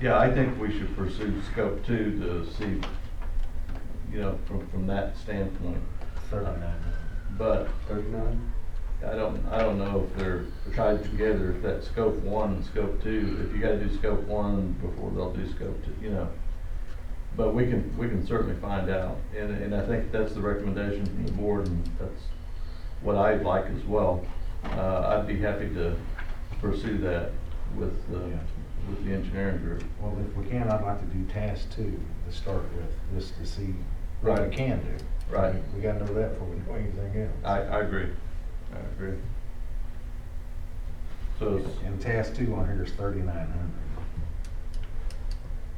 Yeah, I think we should pursue scope two to see, you know, from, from that standpoint. Thirty-nine. But Thirty-nine? I don't, I don't know if they're tied together, if that's scope one and scope two, if you gotta do scope one before they'll do scope two, you know. But we can, we can certainly find out, and, and I think that's the recommendation from the board, and that's what I'd like as well. Uh, I'd be happy to pursue that with, uh, Yeah. with the engineering group. Well, if we can, I'd like to do task two to start with, just to see what Right. we can do. Right. We gotta know that before we do anything else. I, I agree, I agree. So, it's- And task two on here is thirty-nine hundred.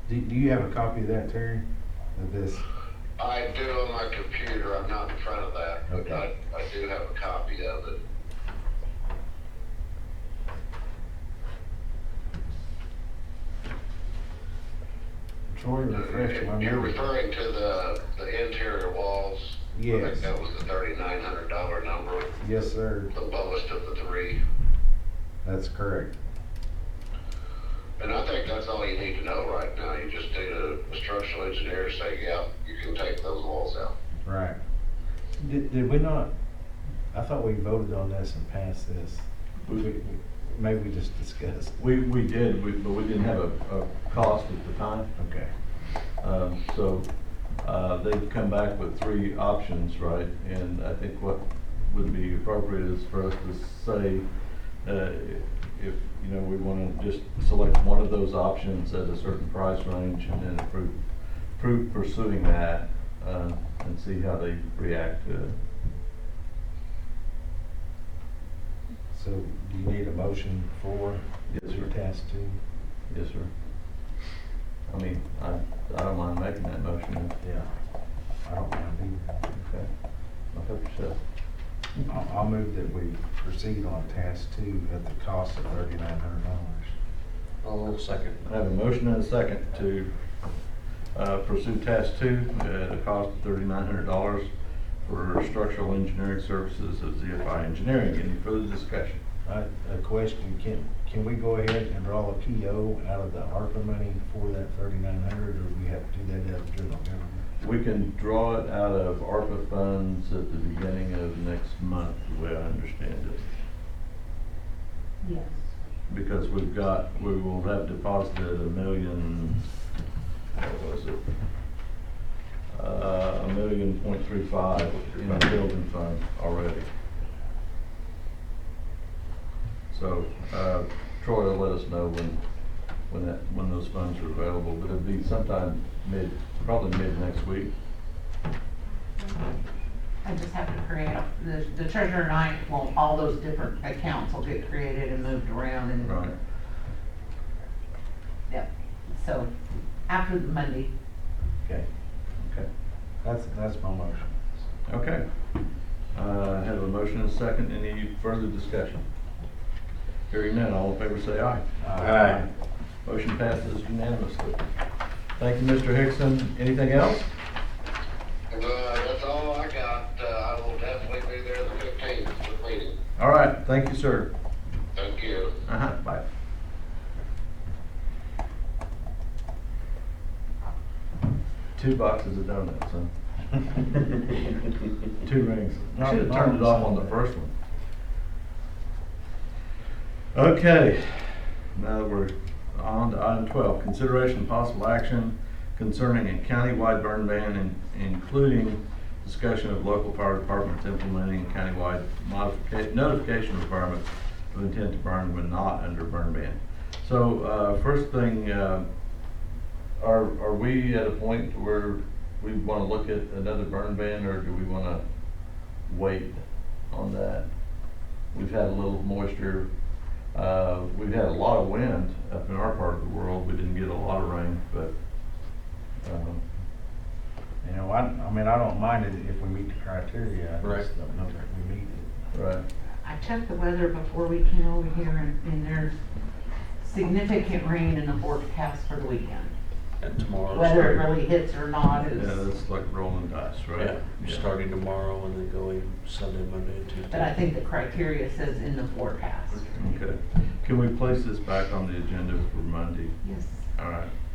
Do, do you have a copy of that, Terry? Of this? I do on my computer, I'm not in front of that, but I, Okay. I do have a copy of it. Troy, refresh my If You're memory. referring to the, the interior walls? I Yes. think that was the thirty-nine hundred dollar number, Yes, sir. the lowest of the three. That's correct. And I think that's all you need to know right now, you just need a a structural engineer to say, yeah, you can take those walls out. Right. Did, did we not, I thought we voted on this and passed this. We- We- we- Maybe we just discussed. we, we did, we- but we didn't have a, a cost at the time. Okay. Um, So uh, they've come back with three options, right? And I think what would be appropriate is for us to say, uh, if, you know, we want to just select one of those options at a certain price range and then approve, approve pursuing that uh, and see how they react to it. So do you need a motion for Yes, your sir. task two? Yes, sir. I mean, I, I don't mind making that motion. if- Yeah. I don't mind either. Okay. I'll help yourself. I'll, I'll move that we proceed on task two at the cost of thirty-nine hundred dollars. I'll Oh, second. I have a motion and a second to uh, pursue task two at a cost of thirty-nine hundred dollars for structural engineering services of ZFI Engineering. Any further discussion? A, a question, can, can we go ahead and draw a PO out of the ARPA money for that thirty-nine hundred, or we have to do that out of general government? We can draw it out of ARPA funds at the beginning of next month, the way I understand it. Yes. Because we've got, we will have deposited a million, what was it? Uh, A million point three five in the building fund already. So uh, Troy will let us know when, when that, when those funds are available, but it'll be sometime mid, probably mid next week. I just have to create, the the treasurer and I, well, all those different accounts will get created and moved around and, Right. yep. So after the Monday, Okay, Okay. that's, that's my motion. Okay. Uh, I Have a motion and a second. Any further discussion? Hearing none, all in favor say aye. Uh, Aye. Motion passes unanimously. Thank you, Mr. Hickson. Anything else? Uh, that's all I got, uh, I will definitely be there the fifteenth, the meeting, All right, thank you, sir. thank you. Uh-huh, bye. Two boxes of donuts, huh? Two rings. I should have turned it off on the first one. Okay, now that we're on to item twelve, consideration and possible action concerning a countywide burn ban, in- including discussion of local fire departments implementing a countywide modification, notification requirement of intent to burn when not under burn ban. So, uh, first thing, uh, are, are we at a point where we wanna look at another burn ban, or do we wanna wait on that? We've had a little moisture, uh, we've had a lot of wind up in our part of the world, we didn't get a lot of rain, but, um, You know, I, I mean, I don't mind it if we meet the criteria, I Right. just don't know that we meet it. right, I checked the weather before we came over here and, and there's significant rain in the forecast for the weekend. And tomorrow. Whether it really hits or not yeah, is, that's like rolling dice, right? Yeah, starting tomorrow and then going Sunday, Monday, and Tuesday. but I think the criteria says in the forecast. Okay, can we place this back on the agenda for Monday? Yes. I- All right.